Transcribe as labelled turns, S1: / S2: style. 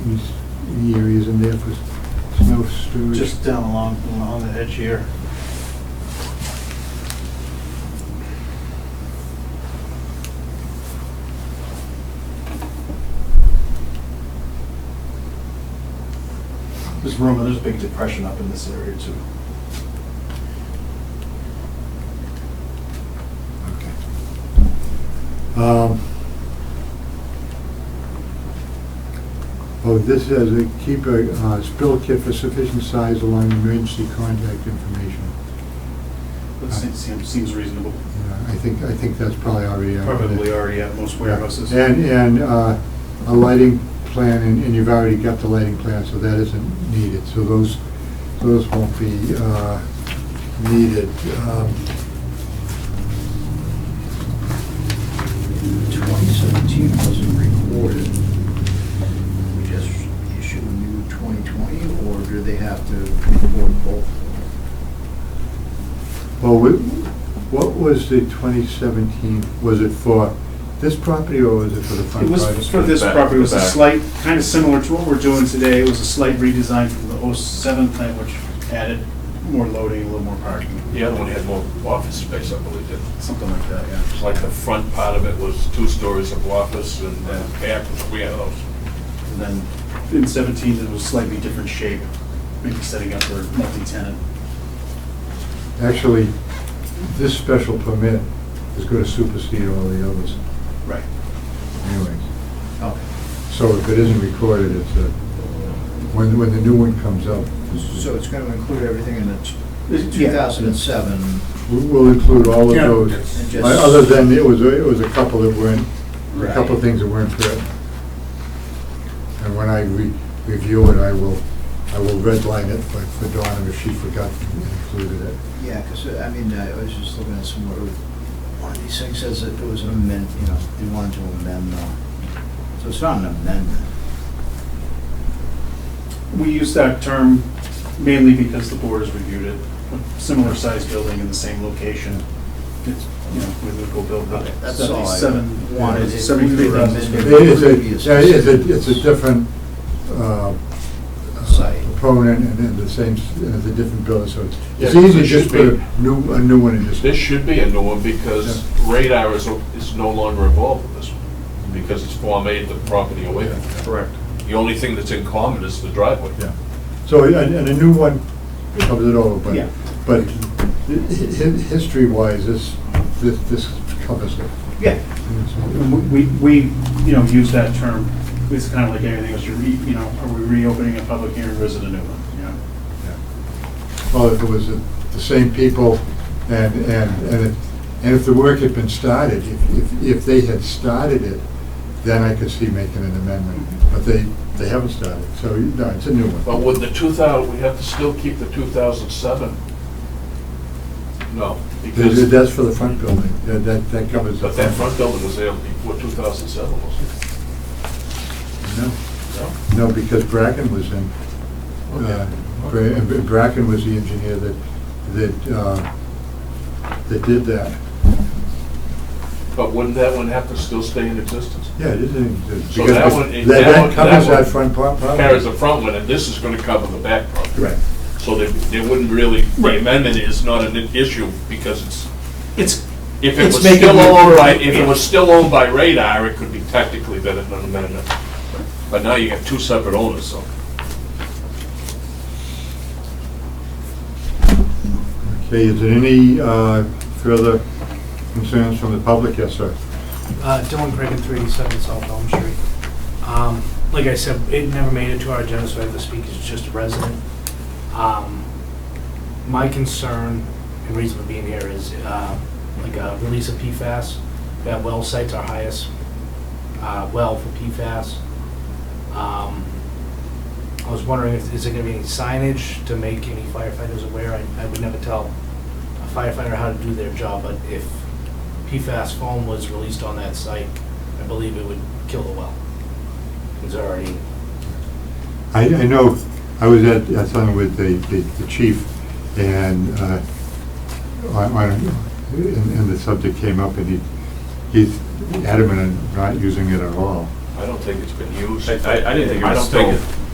S1: these, the areas in there for snow storage?
S2: just down along, along the edge here. There's rumor, there's a big depression up in this area too.
S1: Okay. Um, Oh, this says, uh, keep a uh, spill kit for sufficient size along emergency contact information.
S2: That seems, seems- seems reasonable.
S1: Yeah, I think, I think that's probably already. out there.
S2: Probably already at most warehouses.
S1: And, and uh, a lighting plan, and and you've already got the lighting plan, so that isn't needed. So those, those won't be uh, needed. Um,
S3: 2017 wasn't recorded. We just issue a new 2020, or do they have to record both?
S1: Well, we- what was the 2017, was it for this property or was it for the front
S2: It was
S1: project?
S2: for this
S4: The back-
S2: property, it was
S4: the
S2: a
S4: back.
S2: slight, kind of similar to what we're doing today, it was a slight redesign from the 07 plant, which added more loading, a little more parking.
S4: The other one had more office space, I believe, did
S2: Something like that, yeah.
S4: It's like the front part of it was two stories of office and then back was warehouse.
S2: And then in 17, it was slightly different shape, maybe setting up for multi-tenant.
S1: Actually, this special permit is going to supersede all the others
S2: Right.
S1: anyways.
S3: Okay.
S1: So if it isn't recorded, it's a, when, when the new one comes up,
S3: So it's going to include everything in the t-
S2: Yeah.
S3: 2007?
S1: we- we'll include all of
S2: Yeah.
S1: those.
S3: and just-
S1: Uh, Other than, it was, it was a couple that weren't, a couple of
S3: Right.
S1: things that weren't there. And when I re- review it, I will, I will redline it for for Donna if she forgot to include it.
S3: Yeah, because, I mean, uh, I was just looking at some, uh, one of these things says that it was an amend, you know, they wanted to amend the, so it's not an amendment.
S2: We use that term mainly because the board has reviewed it, a similar size building in the same location. It's, you know, we would go build that.
S3: That's all I
S2: Seventy-seven,
S3: wanted. It- we were
S2: 73,000 square
S1: It
S2: feet.
S1: is a, yeah, it is a, it's a different, uh,
S3: Site.
S1: proponent and then the same, s- uh, the different building, so it's- it's
S4: Yeah,
S1: easy to
S4: it
S1: just
S4: should
S1: put
S4: be.
S1: a new, a new one in
S4: This
S1: this.
S4: should be a new one because radar is, is no longer involved with this one because it's Form A, the property away.
S2: Correct.
S4: The only thing that's in common is the driveway.
S1: Yeah. So, and, and a new one covers it over,
S2: Yeah.
S1: but, but hi- hi- history-wise, this, this, this covers it.
S2: Yeah. And We, we, you know, use that term, it's kind of like anything else, you re, you know, are we reopening a public hearing or is it a new one? You know?
S1: Well, if it was the the same people, and, and, and if, and if the work had been started, if, if- if they had started it, then I could see making an amendment, but they, they haven't started, so, no, it's a new
S4: But
S1: one.
S4: with the 2000, we have to still keep the 2007. No,
S1: Th- th-
S4: because,
S1: That's for the front building, that, that that covers. the
S4: but that front building was there before 2007, wasn't
S1: No,
S4: it? No?
S1: no, because Bracken was in, uh, Bra- Bra- Bracken was the engineer that, that, uh, that did that.
S4: But wouldn't that one have to still stay in existence?
S1: Yeah, it is, in- because
S4: So that one-
S1: that,
S4: that
S1: that
S4: one- that
S1: covers
S4: one
S1: that front part.
S4: Carries the front one, and this is gonna cover the back part.
S1: Right.
S4: So they, they wouldn't really, the amendment is not an issue, because it's,
S2: It's,
S4: if it
S2: It's
S4: was
S2: making
S4: still
S2: it-
S4: owned by, if it was still owned by Radar, it could be technically been an amendment. But now you got two separate owners, so.
S1: Okay, is there any uh, further concerns from the public? Yes, sir.
S5: Uh, Dylan Craig and 387 South Elm Street. Um, Like I said, it never made it to our agenda, so I have to speak as just a resident. Um, My concern and reason for being here is uh, like a release of PFAS. That well site's our highest uh, well for PFAS. Um, I was wondering, if is there going to be any signage to make any firefighters aware? I- I would never tell a firefighter how to do their job, but if PFAS foam was released on that site, I believe it would kill the well. It's already,
S1: I, I know, I was at, I was on with the, the the chief, and, uh, on, on- and and the subject came up, and he, he's adamant on not using it at all.
S4: I don't think it's been used.
S6: I- I- I didn't think it
S4: I
S6: was
S4: don't think
S6: still-